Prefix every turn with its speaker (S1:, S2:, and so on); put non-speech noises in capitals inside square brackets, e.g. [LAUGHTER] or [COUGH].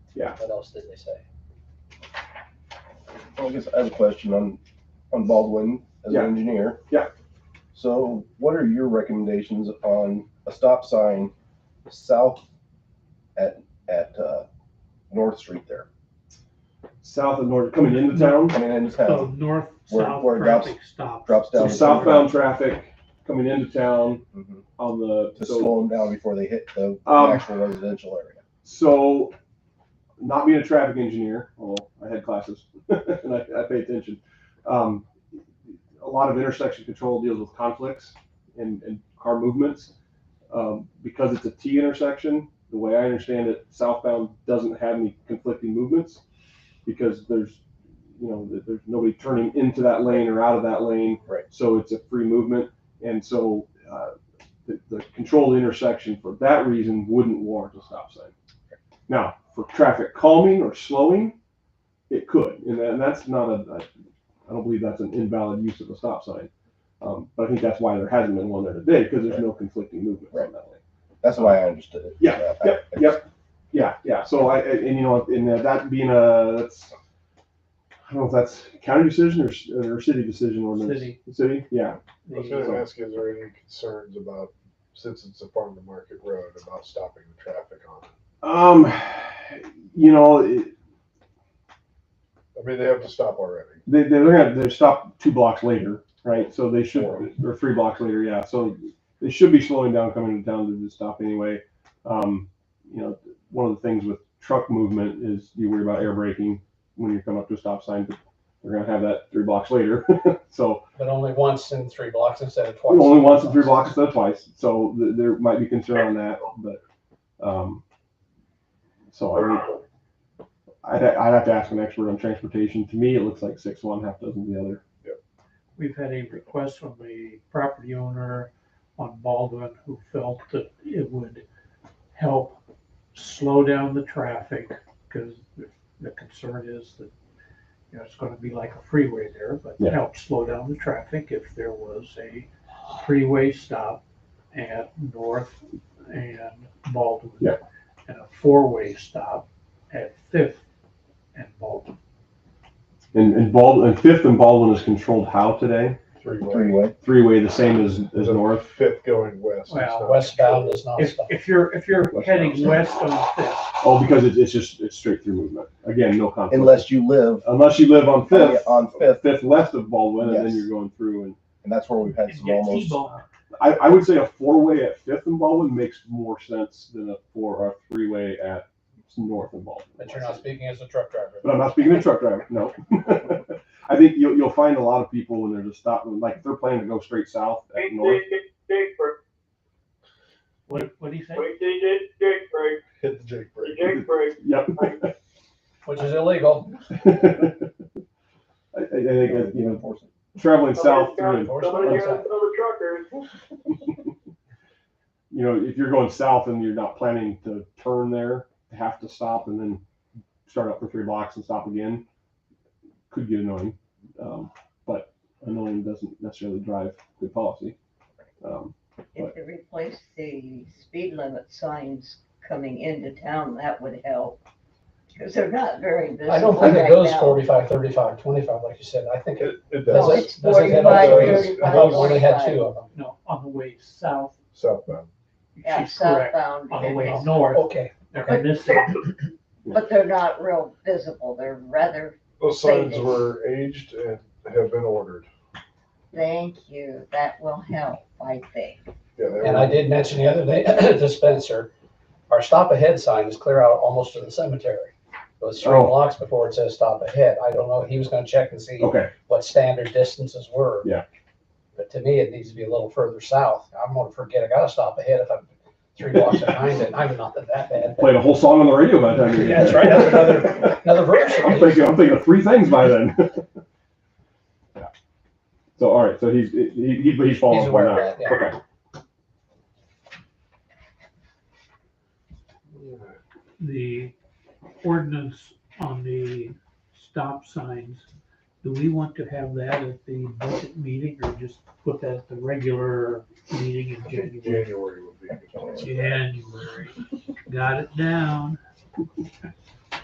S1: Yeah.
S2: What else did they say?
S3: Well, I guess I have a question on, on Baldwin as an
S1: Yeah.
S3: engineer.
S1: Yeah.
S3: So what are your recommendations on a stop sign south at, at, uh, North Street there?
S1: South and north, coming into town,
S3: Coming into
S4: So
S3: town, Where-
S4: north-south
S3: where it drops-
S4: traffic stop.
S1: Um,
S3: drops
S1: so
S3: down. to-
S1: southbound traffic coming into town
S3: Mhm.
S1: on the,
S3: To
S1: so,
S3: slow them down before they hit the
S1: Um,
S3: actual residential area.
S1: so not being a traffic engineer, although I had classes [LAUGHS] and I, I pay attention. Um, a lot of intersection control deals with conflicts and, and car movements. Um, because it's a T intersection, the way I understand it, southbound doesn't have any conflicting movements because there's, you know, there- there's nobody turning into that lane or out of that lane.
S3: Right.
S1: So it's a free movement. And so, uh, the, the controlled intersection for that reason wouldn't warrant a stop sign. Now, for traffic calming or slowing, it could, and that- and that's not a, I I don't believe that's an invalid use of a stop sign. Um, but I think that's why there hasn't been one there today, because there's no conflicting movement on that lane.
S3: That's why I understood it.
S1: Yeah,
S3: I-
S1: yep,
S3: I-
S1: yep. Yeah, yeah, so I, I- and you know, and that being a, that's, I don't know if that's county decision or, s- or city decision ordinance.
S4: City.
S1: City, yeah,
S5: I was gonna ask, is there any concerns about, since it's a farm to market road, about stopping the traffic on it?
S1: um, you know, it,
S5: I mean, they have to stop already.
S1: They, they're gonna, they're stopped two blocks later, right? So they should,
S5: Four.
S1: or three blocks later, yeah. So they should be slowing down coming into town to just stop anyway. Um, you know, one of the things with truck movement is you worry about air braking when you come up to a stop sign, but they're gonna have that three blocks later. [LAUGHS] so
S2: But only once in three blocks instead of twice.
S1: only once in three blocks instead of twice. So th- there might be concern on that, but, um, so I mean, I'd, I'd have to ask an expert on transportation. To me, it looks like six one, half dozen the other.
S4: We've had a request from a property owner on Baldwin who felt that it would help slow down the traffic because the concern is that, you know, it's going to be like a freeway there, but
S1: Yeah.
S4: help slow down the traffic if there was a freeway stop at North and Baldwin.
S1: Yeah.
S4: And a four-way stop at Fifth and Baldwin.
S1: And, and Baldwin, and fifth and Baldwin is controlled how today?
S5: Three-way.
S3: Three-way,
S1: Three-way, the same as, as
S5: The
S1: north?
S5: Fifth going west. is
S4: Well,
S5: not
S2: Westbound is not
S4: If,
S2: stopped.
S4: if you're, if you're
S1: West
S4: heading
S1: Coast.
S4: west on Fifth,
S1: Oh, because it's, it's just, it's straight through movement. Again, no conflict.
S3: unless you live,
S1: Unless you live on
S3: Yeah,
S1: Fifth.
S3: on Fifth.
S1: Fifth west of Baldwin, and then
S3: Yes.
S1: you're going through and,
S3: and that's where we've had
S4: and
S3: some
S4: get
S3: almost,
S4: T-boned.
S1: I, I would say a four-way at Fifth and Baldwin makes more sense than a four, or a three-way at north and Baldwin.
S2: But you're not speaking as a truck driver.
S1: But I'm not speaking to truck driver, no. [LAUGHS] I think you'll, you'll find a lot of people when there's a stop, like, if they're planning to go straight south at north.
S6: Jake
S4: What, what'd he say?
S6: break,
S5: Hit the Jake brake.
S6: Jake break.
S1: Yep. [LAUGHS]
S2: Which is illegal.
S1: I, I I think, uh, you know, traveling south through and
S6: Some of you guys know the truckers.
S1: you know, if you're going south and you're not planning to turn there, have to stop and then start up for three blocks and stop again, could get annoying. Um, but annoying doesn't necessarily drive good policy. Um,
S7: If they replace the speed limit signs coming into town, that would help. Because they're not very visible
S2: I don't think it goes 45, 35, 25, like you said. I think it
S5: It, it
S2: does
S7: No,
S2: it.
S5: does
S7: it's
S2: does it head
S7: 45,
S2: up there?
S7: 35,
S2: I thought we only had
S7: 45.
S2: two of them.
S4: No, on the way south,
S5: southbound.
S7: Yeah,
S4: she's correct.
S7: southbound,
S4: On the
S7: it
S4: way
S7: is.
S4: north,
S2: Okay.
S4: they're missing.
S7: but they're not real visible. They're rather,
S5: Those signs were aged and have been ordered.
S7: thank you, that will help, I think.
S5: Yeah, they
S2: And I
S5: were,
S2: did mention the other [COUGHS] day to Spencer, our stop ahead sign is clear out almost to the cemetery. It was three
S1: Oh.
S2: blocks before it says stop ahead. I don't know. He was gonna check and see
S1: okay,
S2: what standard distances were.
S1: Yeah.
S2: But to me, it needs to be a little further south. I'm gonna forget, I gotta stop ahead if I'm three blocks behind it. I'm not that that bad.
S1: played a whole song on the radio by the time. you-
S2: Yeah, that's right.
S1: [LAUGHS]
S2: That's another- Another verse.
S1: I'm thinking, I'm thinking of three things by then. [LAUGHS] yeah. So all right, so he's he, he, he's following
S2: He's
S1: up
S2: aware
S1: on
S2: of
S1: that.
S2: that, yeah.
S1: Okay.
S4: The ordinance on the stop signs, do we want to have that at the budget meeting or just put that at the regular meeting in January?
S5: January would be. a good time.
S4: January, got it down.